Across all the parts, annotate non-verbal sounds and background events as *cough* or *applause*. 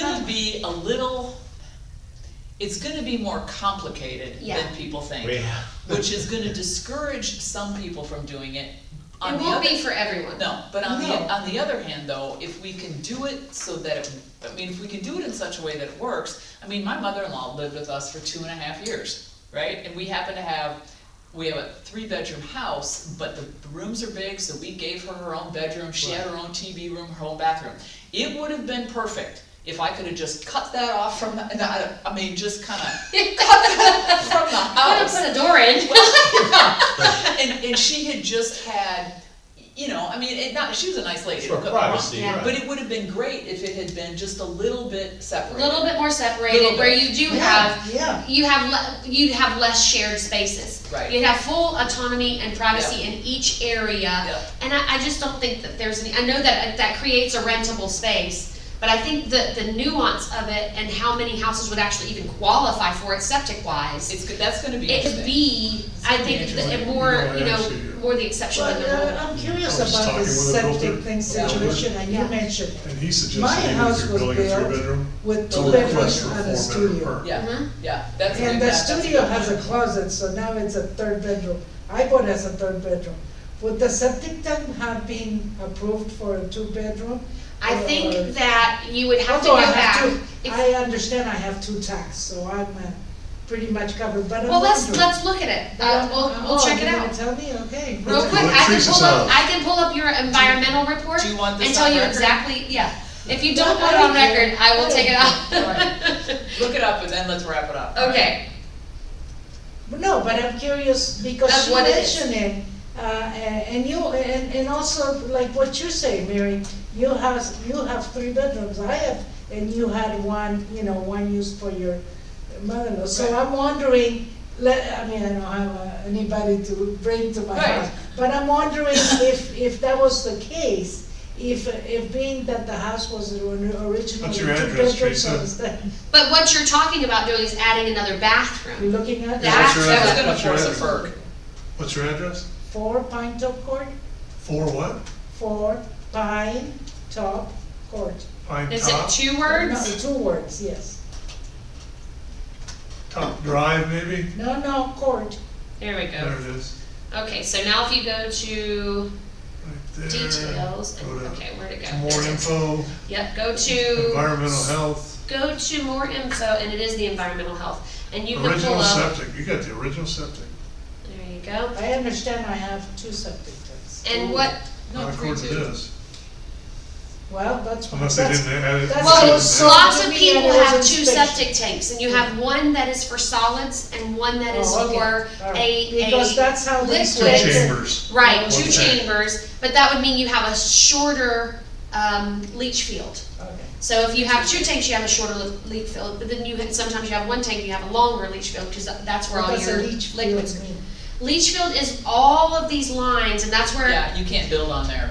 Um, be a little, it's gonna be more complicated Yeah. than people think, Yeah. which is gonna discourage some people from doing it. On It the won't other- be for everyone. No, but on the, No. on the other hand, though, if we can do it so that, it- I mean, if we can do it in such a way that it works, I mean, my mother-in-law lived with us for two and a half years, right? And we happen to have, we have a three-bedroom house, but the rooms are big, so we gave her her own bedroom, she had her own TV room, her own bathroom. It would have been perfect if I could have just cut that off from, the- and I, I mean, just *laughs* kinda cut that from the I'm gonna house. put a door in. *laughs* And, and she had just had, you know, I mean, it not, she was a nice lady. For don't get me wrong. privacy, Yeah. right. But it would have been great if it had been just a little bit A separate. little bit more separated, Little where bit. you do Yeah, have, Yeah. you have, le- you'd have less shared spaces. Right. You'd have full autonomy and privacy in each area. Yeah, And I, I just don't think that there's any, I know that, that creates a rentable space, but I think the, the nuance of it and how many houses would actually even qualify for it septic wise. it's, go- that's gonna be It could interesting. be, I think, It's that it like, more, you you know, know, actually, yeah. more the exception than the Well, rule. uh, But I'm curious I was just about the talking with a septic builder. thing Yeah. situation that you Yeah. mentioned And he My suggested even house if you're was building a built three-bedroom, with to two request bedrooms for a and a four-bedroom studio. per. Yeah, Mhm. yeah, that's. And the that's- that's- studio has a closet, so now it's a third bedroom. I bought as a third bedroom. Would the septic tank have been approved for a two-bedroom? I Or- uh, think that you would Oh, have to Although go I have back. two, If- I understand I have two tanks, so I'm uh, pretty much covered, but I'm Well, let's, wondering. let's look at it, uh, we'll, we'll Oh, check it you're out. gonna tell me, okay. Real Let's- quick, I let's can trace pull this up, out. I can pull up your environmental report Do you want this and tell on you record? exactly, yeah. If you don't No, put it I on don't care. record, I will I take it don't out. Look it up and then let's wrap it up. *laughs* Okay, No, but I'm curious That's because she what it is. mentioned it, uh, and you, and, and also like what you say, Mary, you have, you have three bedrooms, I have, and you had one, you know, one used for your mother-in-law, so Right. I'm wondering, let, I mean, I don't have uh, anybody to bring to my Right. house, but I'm wondering if, if that was the case, if, if being that the house was originally two bedrooms. What's your address, Teresa? instead- but what you're talking about doing is adding another You're bathroom. *laughs* looking at That- What's your That's That's address? gonna What's your force a address? perk. What's your address? four Pine Top Court, Four what? for pine top court. Pine Is it Top, two No, words? Two words, yes. Top Drive maybe? No, no, court. There we There go. it is, Okay, so now if you go to right there. details, Go to okay, where'd it go? some more info, Yep, go to, environmental health, go to more info, and it is the environmental health, and you can pull original up, septic, you got the original septic. there you go. I understand I have two septic tanks. And what, No, Not three, according to two. this, Well, that's. what- unless they that's- didn't add it. that's- Well, So lots to of me, people it was have two inspection. septic tanks, and you have one that is for solids and one that is Oh, okay. for All right. a, Because a, that's how they. Two liquid. chambers, right, two Okay. chambers, but that would mean you have a shorter, um, leach field. Okay. So if you have two tanks, you have a shorter le- leach field, but then you, ha- sometimes you have one tank, you have a longer leach field, because that's where all What does your a leach liquids. field mean? Leach field is all of these lines, and that's where Yeah, you can't build on there.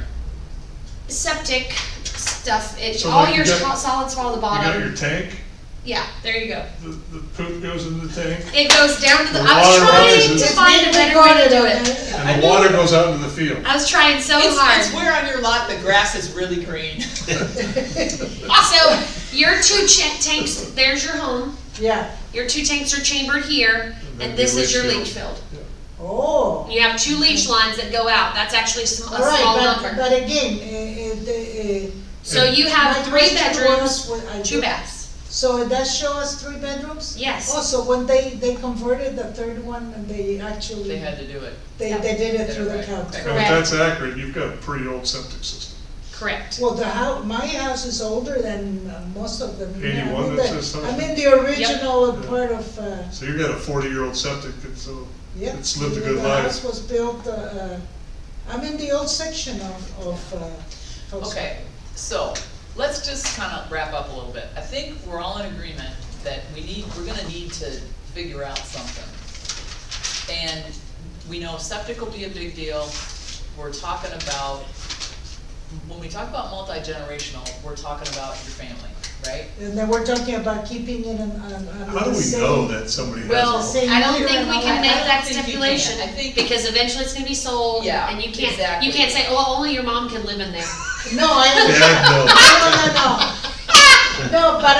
septic stuff, it, So all like you your got- so- solids fall to the you got bottom. your tank, Yeah, there you go. the, the poop goes in the tank, It goes down to the, The I was water trying rises. to find a We better got way to do on it. that. I and know. the water goes out into the field. I was trying so It's, it's hard. where on your lot the grass is really green. *laughs* So your two cha- tanks, there's your home, *laughs* Yeah, your two tanks are chambered here, and then this your is your leach leach field. oh. You have two leach lines that go out, that's actually sm- All a small right, but, number. but again, eh, eh, the, eh, So you have my three question bedrooms, was, I two do- baths. So that show us three bedrooms? Yes. Also, Oh, when they, they converted the third one, they actually. They had to do it. They, they did it through the county. Now, if that's accurate, you've got a pretty old septic system. Correct. Well, the house, my house is older than uh, most of them. Yeah, I'm 81 that in the- says I'm something. in the original Yeah. part of, uh, So you've got a forty-year-old septic, and so yeah. It's lived a the- good The life. house was built, uh, uh, I'm in the old section of, of, uh. Volkswagen. Okay, so, let's just kind of wrap up a little bit. I think we're all in agreement that we need, we're gonna need to figure out something. And we know septic will be a big deal, we're talking about, when we talk about multi-generational, we're talking about your family, right? And then we're talking about keeping it on, on, on how do the we same- know that somebody Well, has? Same I don't year think and we all can that. make I don't that think you can. stipulation, I think- because eventually it's gonna be sold, Yeah, and you can't, exactly. you can't say, oh, only *laughs* your mom can live in there. No, I, Dad, no. no, no, no. No, but